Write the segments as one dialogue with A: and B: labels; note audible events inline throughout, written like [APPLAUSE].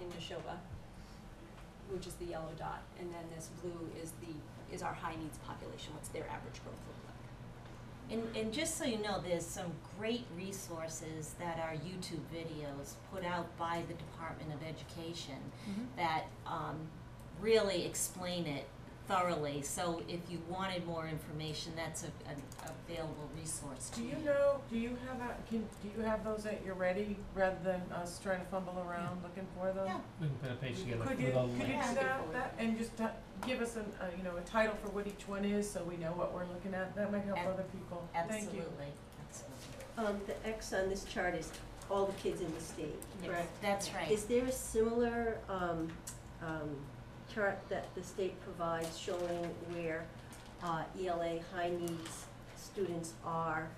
A: in Neshoba, which is the yellow dot, and then this blue is the, is our high needs population, what's their average growth look like?
B: And, and just so you know, there's some great resources that are YouTube videos put out by the Department of Education that um, really explain it thoroughly. So if you wanted more information, that's a, an available resource to
C: Do
B: you.
C: you know, do you have, a- can, do you have those at your ready, rather than us trying to fumble around looking for them?
B: Yeah.
D: We can put a page together
C: Could
D: with
C: you,
D: all the
C: could you
D: links.
C: do
A: links.
C: that, that, and just uh, give us an, uh, you know, a title for what each one is, so we know what we're looking at, that might help
B: Ab-
C: other people, thank
B: Absolutely,
C: you.
B: absolutely.
E: Um, the X on this chart is all the kids in the state, correct?
B: That's right.
E: Is there a similar, um, um, chart that the state provides showing where, uh, ELA high needs students are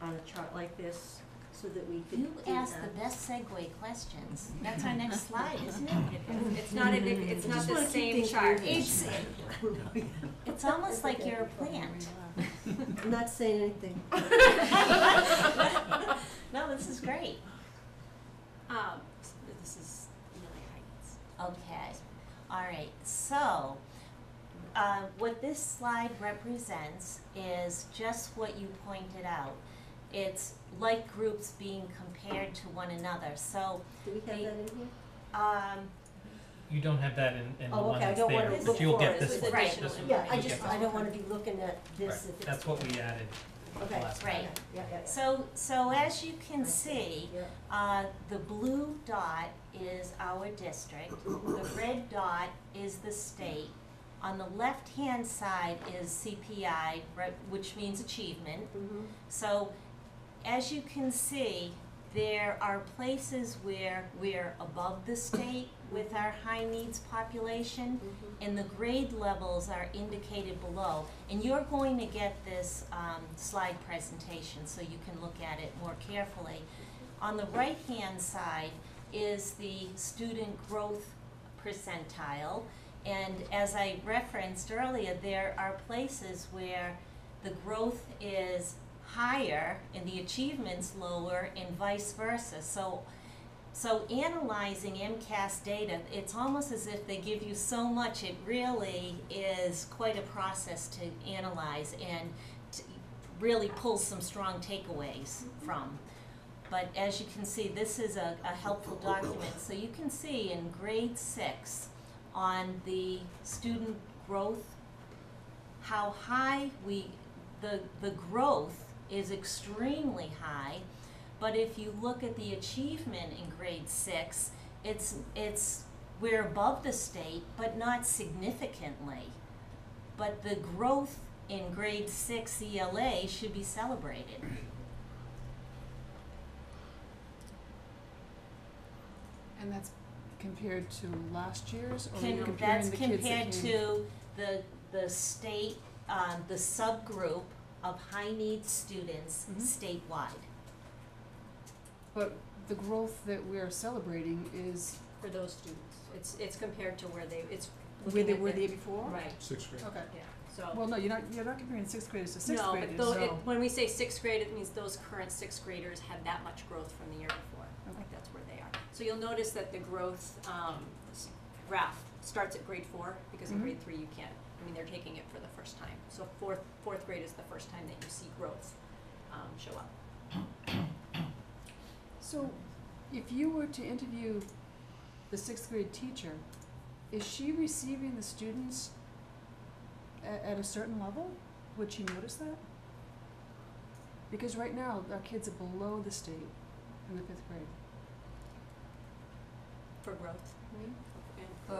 E: on a chart like this, so that we could
B: You
E: do that?
B: ask the best segue questions. That's our next slide, isn't it?
A: It's not, a- it's not
E: Just
A: the
E: wanna keep
A: same
E: things
A: chart.
E: moving.
B: It's, it's almost like you're a plant.
E: I'm not saying anything.
B: [LAUGHS] No, this is great.
A: Um, s- this is really high needs.
B: Okay, all right, so, uh, what this slide represents is just what you pointed out. It's like groups being compared to one another, so,
E: Do we have that in here?
B: um,
D: You don't have that in, in the
E: Oh,
D: one
E: okay, I
D: that's
E: don't
D: there,
E: wanna
D: but you'll
E: look
D: get
E: for it.
D: this
A: This
D: one,
A: is additional
D: this one.
E: Yeah, I
D: You'll
E: just,
D: get
E: I don't wanna be looking at
D: Right.
E: this if it's.
D: That's what we added at the
E: Okay,
D: last
B: right.
D: time.
E: Yeah, yeah, yeah.
B: so, so as you can
E: Right.
B: see,
E: Yeah.
B: Uh, the blue dot is our district, the red dot is the state. On the left-hand side is CPI, right, which means achievement.
E: Mhm.
B: So, as you can see, there are places where we're above the state with our high needs population,
E: Mhm.
B: and the grade levels are indicated below. And you're going to get this um, slide presentation so you can look at it more carefully. On the right-hand side is the student growth percentile. And as I referenced earlier, there are places where the growth is higher and the achievements lower and vice versa. So so analyzing MCAS data, it's almost as if they give you so much, it really is quite a process to analyze and to really pull some strong takeaways from. But as you can see, this is a, a helpful document. So you can see in grade six on the student growth, how high we, the, the growth is extremely high. But if you look at the achievement in grade six, it's, it's, we're above the state, but not significantly. But the growth in grade six ELA should be celebrated.
F: And that's compared to last year's, or
B: Can-
F: are you comparing
B: that's
F: the kids that
B: compared
F: came-
B: to the, the state, um, the subgroup of high-need students
F: Mhm.
B: statewide.
F: But the growth that we are celebrating is,
A: For those students, it's, it's compared to where they, it's.
F: where
A: looking
F: they
A: at
F: were
A: the-
F: there
D: Oh.
F: before?
A: Right,
G: Sixth grade.
F: Okay,
A: yeah, so.
F: well, no, you're not, you're not comparing sixth graders to sixth
A: No,
F: graders,
A: but though, it, when we say sixth grade, it means those current sixth graders had that much growth from the year before.
F: Okay.
A: Like that's where they are. So you'll notice that the growth, um, s- graph starts at grade four, because in
D: Mm-hmm.
F: Mhm.
A: grade three you can't, I mean, they're taking it for the first time. So fourth, fourth grade is the first time that you see growth, um, show up.
F: So, if you were to interview the sixth grade teacher, is she receiving the students a- at a certain level? Would she notice that? Because right now, our kids are below the state in the fifth grade.
A: For growth,
D: Mm-hmm.
A: and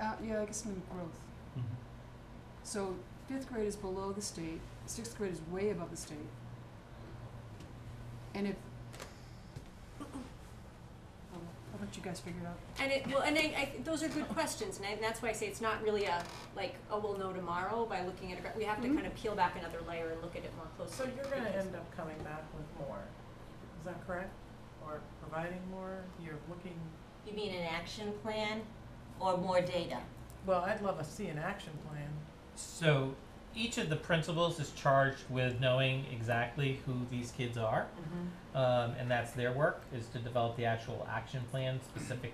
F: Uh, uh, yeah, I guess in growth.
D: Mhm.
F: So fifth grade is below the state, sixth grade is way above the state. And if, [COUGHS] I'll I'll let you guys figure it out.
A: And it, well, and I, I, those are good questions, and I, and that's why I say it's not really a, like, oh, we'll know tomorrow by looking at a, gra- we have to
F: Mhm.
A: kind of peel back another layer and look at it more
C: So
A: closely.
C: you're gonna
A: because-
C: end up coming back with more, is that correct? Or providing more, you're looking,
B: You mean an action plan or more data?
C: well, I'd love to see an action plan.
D: So each of the principals is charged with knowing exactly who
E: Mm-hmm.
D: these kids are. Um, and that's their work, is to develop the actual action plan specific